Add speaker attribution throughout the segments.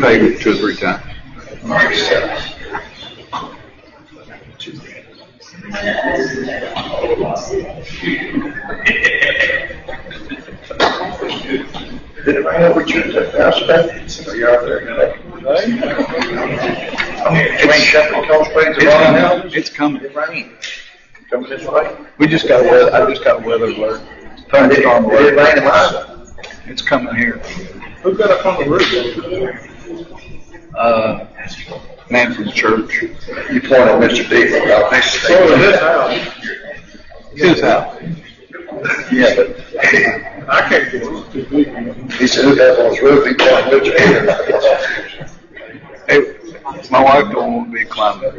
Speaker 1: paid it two or three times.
Speaker 2: Did it rain over Tuesday, Thursday? Are you out there today? I mean, it ain't Shepherd Cold Springs or
Speaker 3: Uh,
Speaker 2: Rotten Hill?
Speaker 1: It's coming.
Speaker 2: It rained. Coming this way?
Speaker 1: We just got weather, I just got weather alert.
Speaker 2: Did it,
Speaker 1: Thunderstorm
Speaker 2: did it
Speaker 1: alert.
Speaker 2: rain in mine?
Speaker 1: It's coming here.
Speaker 3: Who got up on the roof?
Speaker 1: Uh, man from the church.
Speaker 2: You pointed Mr. D. out this thing.
Speaker 3: Over this house.
Speaker 1: His house.
Speaker 2: Yeah, but
Speaker 3: I can't get it.
Speaker 2: he said, who that was roof, he pointed Mr. D.
Speaker 1: Hey, my wife don't want me climbing.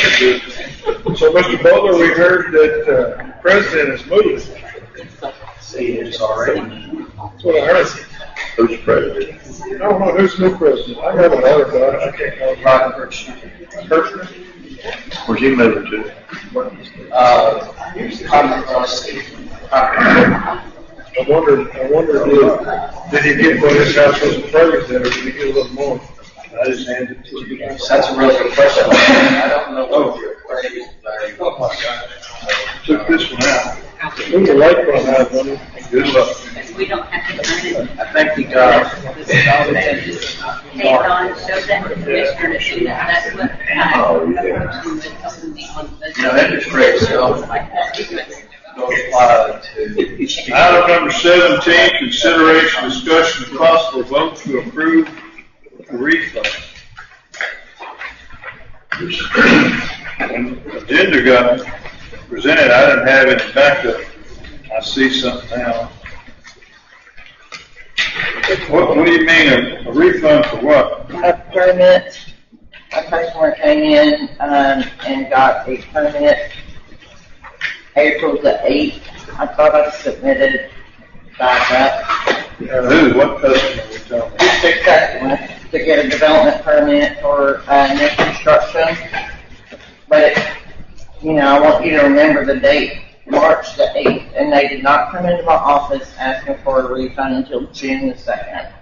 Speaker 3: So, Mr. Butler, we heard that uh, president is moving. See, it's already. That's what I heard.
Speaker 2: Who's president?
Speaker 3: I don't know who's new president. I have a letter, but I can't know. Ryan Kirchner.
Speaker 2: Where's he moving to?
Speaker 4: Uh,
Speaker 3: I wonder, I wonder, if- did he get what his house was in Ferguson, or did he get a little more? I just handed it to you.
Speaker 4: That's a really good question. I don't know what your question is, but
Speaker 3: Took this one out. There's a light one out, wasn't it? Good luck.
Speaker 5: Because we don't have to turn it,
Speaker 4: I uh, think we got,
Speaker 5: take it on, show that to the commissioner to see that, that's what uh, I.
Speaker 2: Oh, yeah.
Speaker 4: you know, interest rates don't, don't apply uh, to.
Speaker 3: Item number seventeen, consideration, discussion, and possible vote to approve the refund. When the Agenda got presented, I didn't have any backup. I see something now. What, what do you mean, a a refund for what?
Speaker 6: a permit, a customer came in, um, and got a permit April the eighth. I thought I submitted back up
Speaker 3: Who, what customer we talking about?
Speaker 6: to customer to get a development permit for, uh, new construction. But, you know, I want you to remember the date, March the eighth, and they did not come into my office asking for a refund until June the second.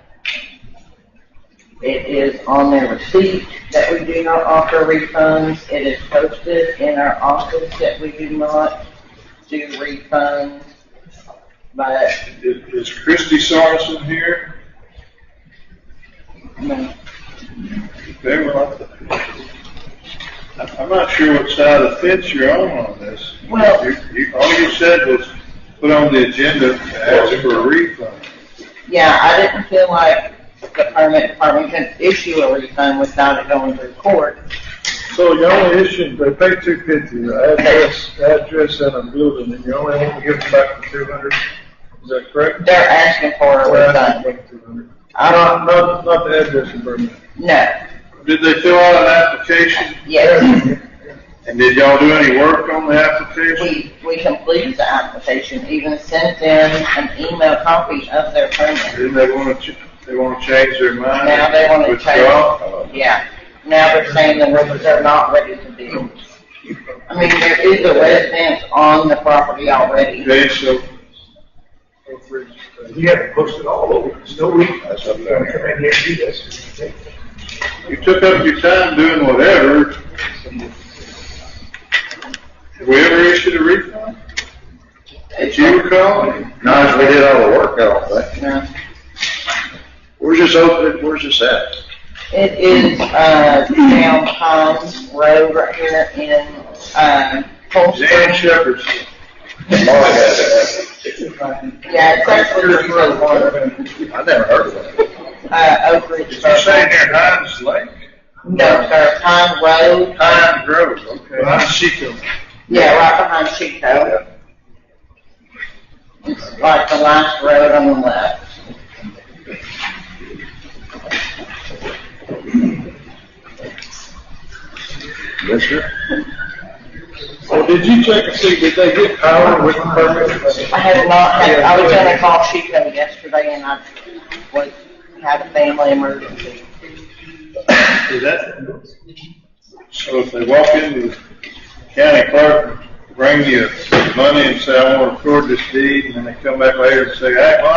Speaker 6: It is on their receipt that we do not offer refunds. It is posted in our office that we do not do refunds. But,
Speaker 3: Is is Christie Sorensen here?
Speaker 6: I mean,
Speaker 3: They were on the- I- I'm not sure what side of the fence you're on on this.
Speaker 6: Well-
Speaker 3: You, you, all you said was put on the agenda to ask for a refund.
Speaker 6: Yeah, I didn't feel like the permit department could issue a refund without it going to court.
Speaker 3: So you only issued, they paid two fifty, address, address and a building, and you only want to give them back the two hundred, is that correct?
Speaker 6: They're asking for a refund. I don't,
Speaker 3: not, not the address and permit.
Speaker 6: no,
Speaker 3: Did they fill out an application?
Speaker 6: yes.
Speaker 3: And did y'all do any work on the application?
Speaker 6: We, we completed the application, even sent them an email copy of their permit.
Speaker 3: Didn't they want to, they want to change their mind?
Speaker 6: Now they want to
Speaker 3: Withdraw?
Speaker 6: change. Yeah, now they're saying the roofers are not ready to build. I mean, there is a residence on the property already.
Speaker 3: Okay, so
Speaker 2: You have it posted all over, it's no reason. I said, I'm gonna come in here and do this.
Speaker 3: you took up your time doing whatever. Have we ever issued a refund? Did you recall?
Speaker 2: Nice, we did all the work, I don't think.
Speaker 6: No.
Speaker 2: Where's this opening, where's this at?
Speaker 6: It is, uh, down Pine Road right here in, um,
Speaker 3: Jan
Speaker 6: Colesburg.
Speaker 3: Shepherd's.
Speaker 2: Mark has it.
Speaker 6: Yeah, it's actually in Road One,
Speaker 2: I never heard of it.
Speaker 6: uh, Oak Ridge.
Speaker 3: You're saying near Hines Lake?
Speaker 6: No, sir, Pine Road,
Speaker 3: Hines Grove, okay. Hines Chico.
Speaker 6: yeah, right behind Chico. It's like the last road on the left.
Speaker 2: Yes, sir.
Speaker 3: Well, did you check and see, did they get power with the permit?
Speaker 6: I had not, had- I was gonna call Chico yesterday and I was, had a family emergency.
Speaker 3: Is that? So if they walk into the county clerk, bring you money and say, I want to record this deed, and then they come back later and say, hey, well,